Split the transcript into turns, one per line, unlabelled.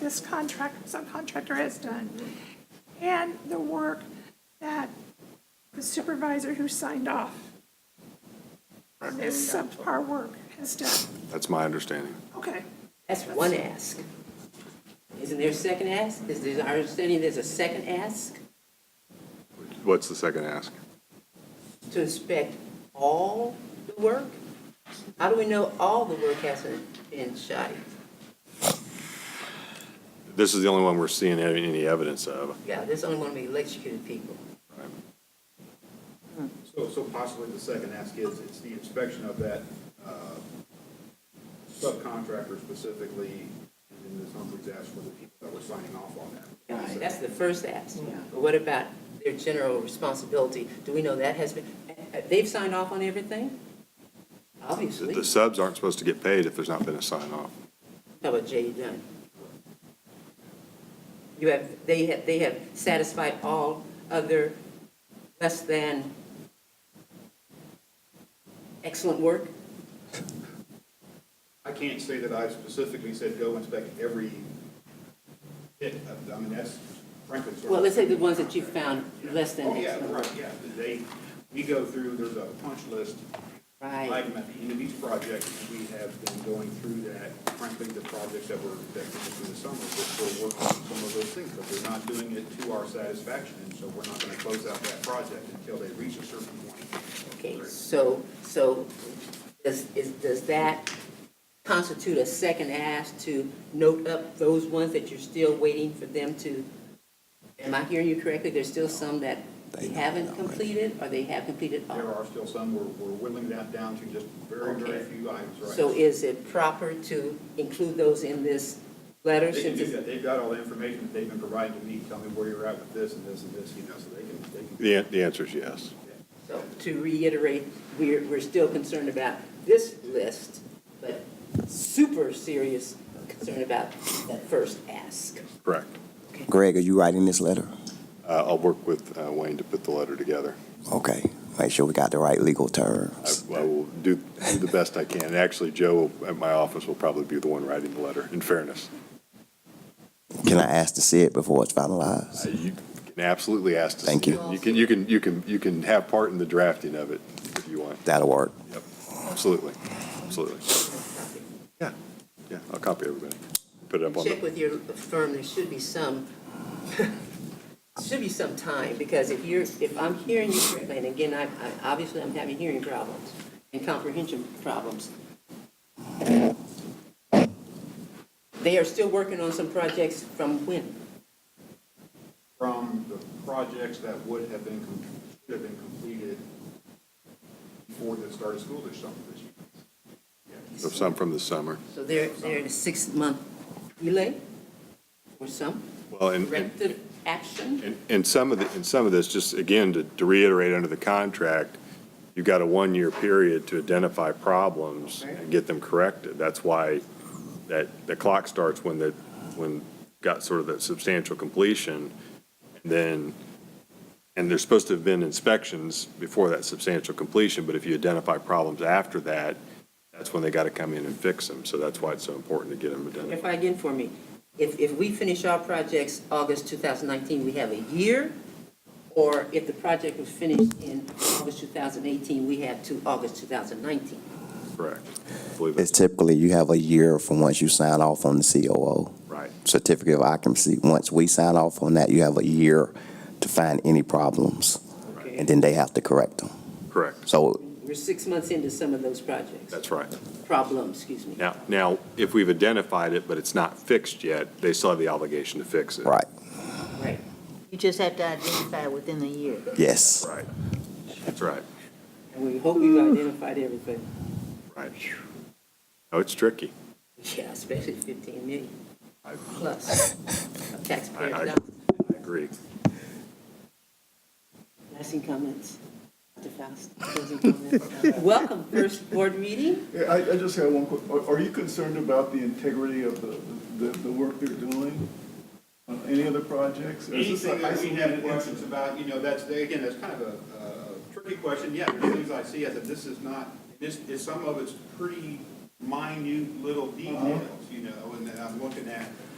this contract, subcontractor has done, and the work that the supervisor who signed off on this subpar work has done.
That's my understanding.
Okay,
That's one ask. Isn't there a second ask? Is there, our understanding there's a second ask
What's the second ask?
to inspect all the work? How do we know all the work hasn't been shot?
This is the only one we're seeing any any evidence of.
Yeah, there's only one of the electrocuted people.
So, so possibly the second ask is, it's the inspection of that uh, subcontractor specifically, and then Ms. Humphries asked for the people that were signing off on that.
Alright, That's the first ask. But what about their general responsibility? Do we know that has been, uh, uh, they've signed off on everything?
The-
Obviously.
The subs aren't supposed to get paid if there's not been a sign off.
How about Jay Dunn? You have, they have, they have satisfied all other less than excellent work?
I can't say that I specifically said go inspect every bit of, I mean, that's frankly. sort of-
Well, let's say the ones that you found less than
Oh, yeah,
excellent.
right, yeah, they, we go through, there's a punch list,
Right,
item at the end of each project, and we have been going through that, frankly, the projects that were, that came through the summer, just we're working on some of those things, but we're not doing it to our satisfaction, and so we're not gonna close out that project until they reach a certain point.
okay, so, so does, is, does that constitute a second ask to note up those ones that you're still waiting for them to? Am I hearing you correctly? There's still some that they haven't completed or they have completed all?
There are still some, we're, we're whittling that down to just very, very
Okay.
few items, right?
So is it proper to include those in this letter?
They can
since
do
it's-
that, they've got all the information that they've been providing to me, tell me where you're at with this and this and this, you know, so they can, they can.
The, an- the answer is yes.
So to reiterate, we're, we're still concerned about this list, but super serious concern about that first ask.
Correct.
Greg, are you writing this letter?
Uh, I'll work with uh, Wayne to put the letter together.
Okay, make sure we got the right legal
I
terms.
I will do do the best I can. And Actually, Joe at my office will probably be the one writing the letter, in fairness.
Can I ask to see it before it's
Uh,
finalized?
You can absolutely ask to see
Thank you.
it. You can, you can, you can, you can have part in the drafting of it if you want.
That'll work.
Yep, absolutely, absolutely. Yeah, yeah, I'll copy everybody. Put it up on
Check
the,
with your firm, there should be some, should be some time, because if you're, if I'm hearing you correctly, and again, I, I, obviously I'm having hearing problems and comprehension problems. They are still working on some projects from when?
from the projects that would have been, com- should have been completed before the start of school this summer this year.
of some from the summer.
So they're, they're in a six-month delay or some
Well, and, and-
corrective action?
and, and some of the, and some of this, just again, to, to reiterate, under the contract, you've got a one-year period to identify problems and get them corrected. That's why that, the clock starts when the, when got sort of that substantial completion. and Then, and there's supposed to have been inspections before that substantial completion, but if you identify problems after that, that's when they got to come in and fix them. So that's why it's so important to get them identified.
Clarify again for me. If, if we finish our projects August 2019, we have a year? Or if the project was finished in August 2018, we have to August 2019?
Correct. I believe
It's
that's
typically, you have a year from once you sign off on the COO,
right.
certificate of occupancy. Once we sign off on that, you have a year to find any problems, and then they have to correct them.
Correct.
So
We're six months into some of those projects,
That's right.
problems, excuse me.
Now, now, if we've identified it, but it's not fixed yet, they still have the obligation to fix it.
Right,
Right.
You just have to identify within a year.
yes.
Right. That's right,
And we hope we've identified everything.
right. Oh, it's tricky.
Yeah, especially 15 million
I-
plus of taxpayer
I- I-
dollars.
I agree.
Lasting comments, Dr. Faust, closing comments. Welcome, first board meeting.
Yeah, I, I just have one quick, are, are you concerned about the integrity of the, the, the work they're doing on any other projects? Or is this
Anything
an
that we have
isolated
questions
incident?
about, you know, that's, again, that's kind of a uh, tricky question. Yeah, there's things I see, I said, this is not, this, is some of it's pretty minute little details, you know, and then I'm looking at,